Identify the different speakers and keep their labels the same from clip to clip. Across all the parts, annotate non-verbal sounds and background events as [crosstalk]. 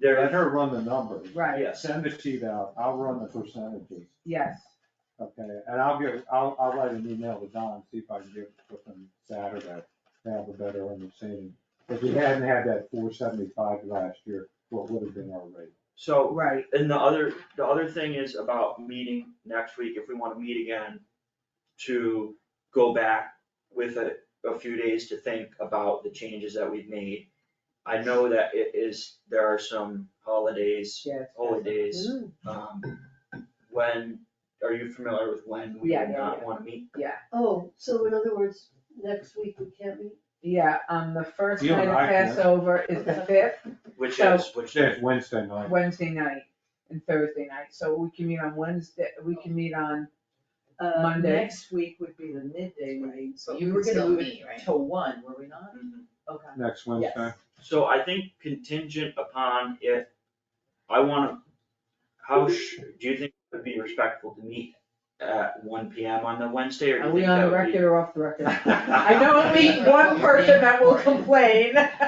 Speaker 1: Let
Speaker 2: There,
Speaker 1: her run the numbers.
Speaker 3: Right,
Speaker 2: yes,
Speaker 1: Send the sheet out, I'll run the percentages,
Speaker 3: yes,
Speaker 1: okay, and I'll give, I'll, I'll write an email to Don, see if I can get something Saturday, to have a better understanding. If we hadn't had that four seventy-five last year, what would have been our rate?
Speaker 2: so,
Speaker 3: right,
Speaker 2: and the other, the other thing is about meeting next week, if we wanna meet again, to go back with a, a few days to think about the changes that we've made. I know that it is, there are some holidays,
Speaker 3: yes.
Speaker 2: holidays,
Speaker 3: Mm,
Speaker 2: um, when, are you familiar with when we
Speaker 3: Yeah,
Speaker 2: do
Speaker 3: yeah,
Speaker 2: not
Speaker 3: yeah.
Speaker 2: wanna meet?
Speaker 4: Oh, so in other words, next week we can't meet?
Speaker 3: Yeah, um, the first
Speaker 1: You
Speaker 3: night
Speaker 1: and
Speaker 3: of
Speaker 1: I can.
Speaker 3: Passover is the fifth,
Speaker 2: Which
Speaker 3: So-
Speaker 2: is, which
Speaker 1: Say
Speaker 2: is,
Speaker 1: it's Wednesday night,
Speaker 3: Wednesday night and Thursday night, so we can meet on Wednesday, we can meet on,
Speaker 5: Uh,
Speaker 3: Monday.
Speaker 5: Next week would be the midday, right?
Speaker 6: So
Speaker 5: But
Speaker 6: you
Speaker 5: we
Speaker 6: would
Speaker 5: were gonna
Speaker 6: still
Speaker 5: move
Speaker 6: meet, right?
Speaker 5: it to one, were we not?
Speaker 2: Mhm.
Speaker 5: Okay.
Speaker 1: next Wednesday.
Speaker 2: so I think contingent upon if, I wanna, how sh, do you think it would be respectful to meet at one P M on the Wednesday, or do
Speaker 3: are
Speaker 2: you
Speaker 3: we
Speaker 2: think
Speaker 3: on the
Speaker 2: that would be?
Speaker 3: record or off the record? [laughs] I
Speaker 2: I
Speaker 3: don't
Speaker 1: [laughs]
Speaker 3: meet one person that will complain, [laughs]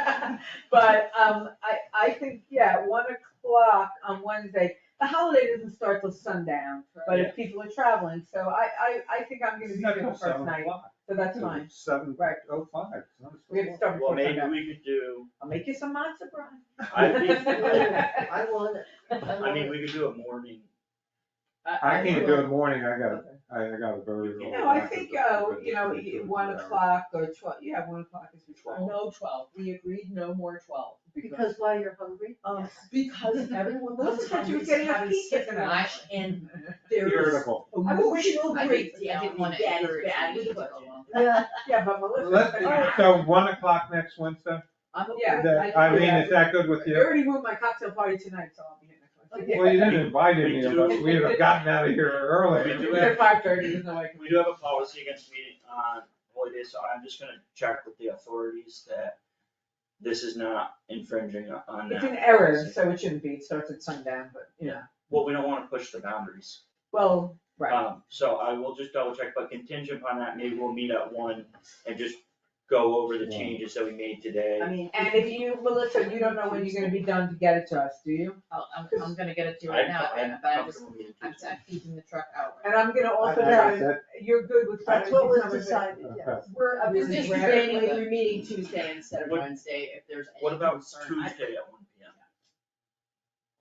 Speaker 3: but, um, I, I think, yeah, one o'clock on Wednesday, the holiday doesn't start till sundown, but if people are traveling, so I, I, I think I'm gonna be here the first night, so that's fine.
Speaker 1: Seven
Speaker 3: Right.
Speaker 1: oh five, it's not-
Speaker 3: We're gonna start
Speaker 2: Well,
Speaker 3: before
Speaker 2: maybe
Speaker 3: sundown.
Speaker 2: we could do,
Speaker 3: I'll make you some matzo, Brian.
Speaker 2: [laughs] I think,
Speaker 4: [laughs] I want it.
Speaker 2: I mean, we could do a morning,
Speaker 1: I can't do it morning, I got,
Speaker 5: Okay.
Speaker 1: I I got a very. early
Speaker 3: No, I
Speaker 1: doctor's
Speaker 3: think, uh,
Speaker 1: appointment
Speaker 3: you know,
Speaker 1: at
Speaker 3: you-
Speaker 1: 3:30,
Speaker 3: one
Speaker 1: two hours.
Speaker 3: o'clock or twelve, yeah, one o'clock is twelve.
Speaker 5: No twelve, we agreed no more twelve.
Speaker 4: [laughs] Because while you're hungry,
Speaker 5: Um,
Speaker 3: [laughs]
Speaker 5: because everyone
Speaker 3: Well,
Speaker 5: was
Speaker 3: that's what you were
Speaker 5: hungry,
Speaker 3: getting
Speaker 5: so
Speaker 3: your
Speaker 5: having
Speaker 3: pizza
Speaker 5: sick
Speaker 3: tonight.
Speaker 5: lunch and there is
Speaker 1: Irritable.
Speaker 5: emotional
Speaker 6: I did- I did
Speaker 5: breakdown,
Speaker 6: wanna
Speaker 5: that is
Speaker 6: encourage
Speaker 5: bad
Speaker 6: you
Speaker 5: with
Speaker 6: to
Speaker 5: the
Speaker 6: go
Speaker 5: budget.
Speaker 6: along.
Speaker 4: [laughs] yeah,
Speaker 3: [laughs] Yeah, but Melissa.
Speaker 1: Let's, so one o'clock next Wednesday?
Speaker 5: I'm okay.
Speaker 3: Yeah,
Speaker 1: That-
Speaker 3: I-
Speaker 1: I mean,
Speaker 3: yeah.
Speaker 1: is that good with
Speaker 3: I
Speaker 1: you?
Speaker 3: already moved my cocktail party tonight, so I'll be in the.
Speaker 4: Okay.
Speaker 1: Well, you
Speaker 3: [laughs]
Speaker 1: didn't invite
Speaker 2: We
Speaker 1: me,
Speaker 2: do.
Speaker 1: but we'd have gotten out of here
Speaker 2: We do
Speaker 1: early.
Speaker 2: have-
Speaker 3: At five thirty, there's no way I
Speaker 1: [laughs]
Speaker 3: can.
Speaker 2: we do have a policy against meeting on holidays, so I'm just gonna check with the authorities that this is not infringing on that.
Speaker 3: It's an error,
Speaker 2: policy.
Speaker 3: so it shouldn't be, it starts at sundown, but, you know,
Speaker 2: Well, we don't wanna push the boundaries.
Speaker 3: well, right,
Speaker 2: Um, so I will just double check, but contingent upon that, maybe we'll meet at one and just go over the
Speaker 1: Yeah.
Speaker 2: changes that we made today.
Speaker 5: I mean.
Speaker 3: and if you, Melissa, you don't know when you're gonna be done to get it to us, do you?
Speaker 6: I'll, I'm, I'm gonna get it to you right now,
Speaker 2: I'm-
Speaker 6: but I'm just,
Speaker 2: comfortable meeting
Speaker 6: I'm,
Speaker 2: Tuesday.
Speaker 6: I'm keeping the truck out.
Speaker 3: And I'm gonna also,
Speaker 1: I- I
Speaker 3: try-
Speaker 1: said-
Speaker 3: you're good with trying
Speaker 4: that's
Speaker 3: to
Speaker 4: what
Speaker 3: do
Speaker 4: was
Speaker 3: some of it.
Speaker 4: decided, yeah.
Speaker 1: okay.
Speaker 6: We're,
Speaker 3: I'm
Speaker 6: just
Speaker 3: just
Speaker 6: debating
Speaker 3: grabbing
Speaker 6: we're meeting Tuesday instead of
Speaker 2: What-
Speaker 6: Wednesday if there's any
Speaker 2: What about
Speaker 6: concern. I-
Speaker 2: Tuesday at one
Speaker 6: [laughs]
Speaker 2: P M?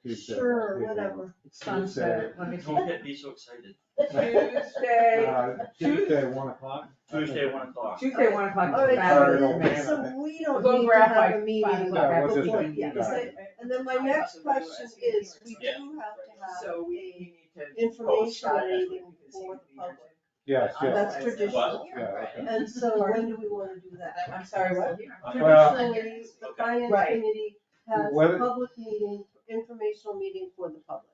Speaker 1: Tuesday,
Speaker 4: Sure,
Speaker 1: Tuesday.
Speaker 4: whatever.
Speaker 3: It's sunset, let me see.
Speaker 2: Don't get, be so excited.
Speaker 3: Tuesday,
Speaker 1: [laughs] Uh, Tuesday, one o'clock?
Speaker 2: Tuesday, one o'clock.
Speaker 3: Tuesday, one o'clock
Speaker 4: All
Speaker 3: is
Speaker 1: Saturday, don't
Speaker 3: fabulous,
Speaker 4: right,
Speaker 3: man.
Speaker 1: man.
Speaker 4: so we don't
Speaker 3: We'll
Speaker 4: need
Speaker 3: go
Speaker 4: to
Speaker 3: out
Speaker 4: have
Speaker 3: by
Speaker 4: a meeting.
Speaker 3: o'clock.
Speaker 1: Yeah, we'll just
Speaker 4: before-
Speaker 1: leave
Speaker 4: yeah.
Speaker 1: that.
Speaker 4: And then my next question is, we do
Speaker 2: Yeah.
Speaker 4: have to have
Speaker 5: So we need to.
Speaker 4: information
Speaker 2: Postcard.
Speaker 4: on anything before the public.
Speaker 1: Yes, yes.
Speaker 4: That's traditional.
Speaker 2: Well,
Speaker 1: Yeah, okay.
Speaker 3: [laughs]
Speaker 4: And so when do we wanna do that?
Speaker 3: I'm sorry, what?
Speaker 1: Well-
Speaker 4: Traditionally, the finance
Speaker 3: Right.
Speaker 4: committee has
Speaker 1: Whether-
Speaker 4: a public meeting, informational meeting for the public.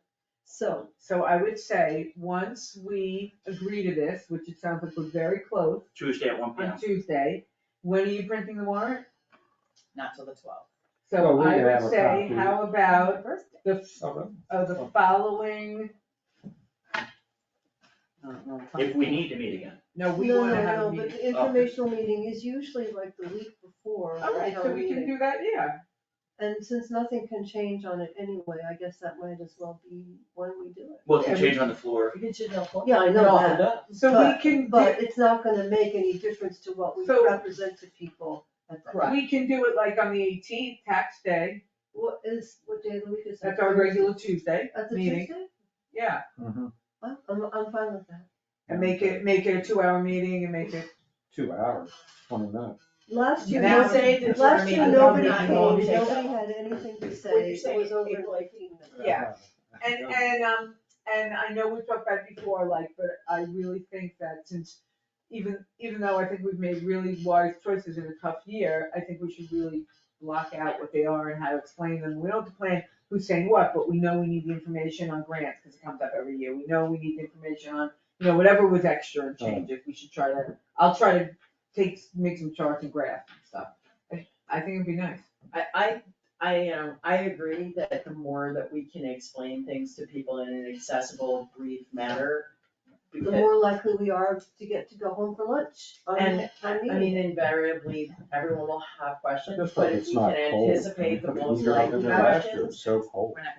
Speaker 4: So,
Speaker 3: So I would say, once we agree to this, which it sounds like we're very close
Speaker 2: Tuesday at one P M.
Speaker 3: on Tuesday, when are you printing the warrant?
Speaker 6: Not till the twelfth.
Speaker 1: Well,
Speaker 3: So
Speaker 1: we
Speaker 3: I
Speaker 1: have
Speaker 3: would
Speaker 1: a
Speaker 3: say,
Speaker 1: copy.
Speaker 3: how about the,
Speaker 1: Okay.
Speaker 3: of the following? I don't know,
Speaker 2: If we need to meet again.
Speaker 3: No, we
Speaker 4: no,
Speaker 3: wanna
Speaker 4: no,
Speaker 3: have a
Speaker 4: no, but
Speaker 3: meeting.
Speaker 4: the informational meeting is usually like the week before.
Speaker 3: All right,
Speaker 4: our
Speaker 3: so we can
Speaker 4: meeting.
Speaker 3: do that, yeah.
Speaker 4: And since nothing can change on it anyway, I guess that might as well be when we do it.
Speaker 2: Well, it can change on the floor.
Speaker 5: You can sit down.
Speaker 4: Yeah, I know that.
Speaker 3: So we
Speaker 4: But-
Speaker 3: can, do-
Speaker 4: But it's not gonna make any difference to what we
Speaker 3: So-
Speaker 4: represent to people at that.
Speaker 5: Correct.
Speaker 3: we can do it like on the eighteenth, tax day,
Speaker 4: What is, what day of the week is that?
Speaker 3: that's our regular Tuesday,
Speaker 4: At the
Speaker 3: meeting.
Speaker 4: Tuesday?
Speaker 3: yeah.
Speaker 1: Mhm.
Speaker 4: I'm, I'm I'm fine with that.
Speaker 3: And make it, make it a two-hour meeting and make it,
Speaker 1: Two hours, twenty minutes.
Speaker 4: Last year,
Speaker 3: Now
Speaker 4: no-
Speaker 3: say that you're
Speaker 4: last year,
Speaker 3: meeting,
Speaker 4: nobody
Speaker 3: not
Speaker 4: came,
Speaker 3: going
Speaker 4: nobody
Speaker 3: to take
Speaker 4: had anything to say, it
Speaker 5: saying
Speaker 4: was over
Speaker 5: April
Speaker 4: fifteen minutes.
Speaker 3: Yeah. and, and, um, and I know we talked about it before, like, but I really think that since, even, even though I think we've made really wise choices in a tough year, I think we should really block out what they are and how to explain them, we don't have to plan who's saying what, but we know we need the information on grants, cause it comes up every year, we know we need the information on, you know, whatever was extra and change, if we should try to, I'll try to take, make some charts and graphs and stuff, I, I think it'd be nice.
Speaker 5: I, I, I, um, I agree that the more that we can explain things to people in an accessible, brief manner,
Speaker 4: the
Speaker 5: because,
Speaker 4: more likely we are to get to go home for lunch on
Speaker 5: and, I
Speaker 4: on meeting.
Speaker 5: mean, invariably, everyone will have questions,
Speaker 1: Just
Speaker 5: but
Speaker 1: like
Speaker 5: if
Speaker 1: it's
Speaker 5: we
Speaker 1: not
Speaker 5: can
Speaker 1: cold.
Speaker 5: anticipate the
Speaker 1: We
Speaker 5: most
Speaker 1: drove
Speaker 5: likely
Speaker 1: in
Speaker 5: questions.
Speaker 1: there last year, it was So cold.
Speaker 6: We're not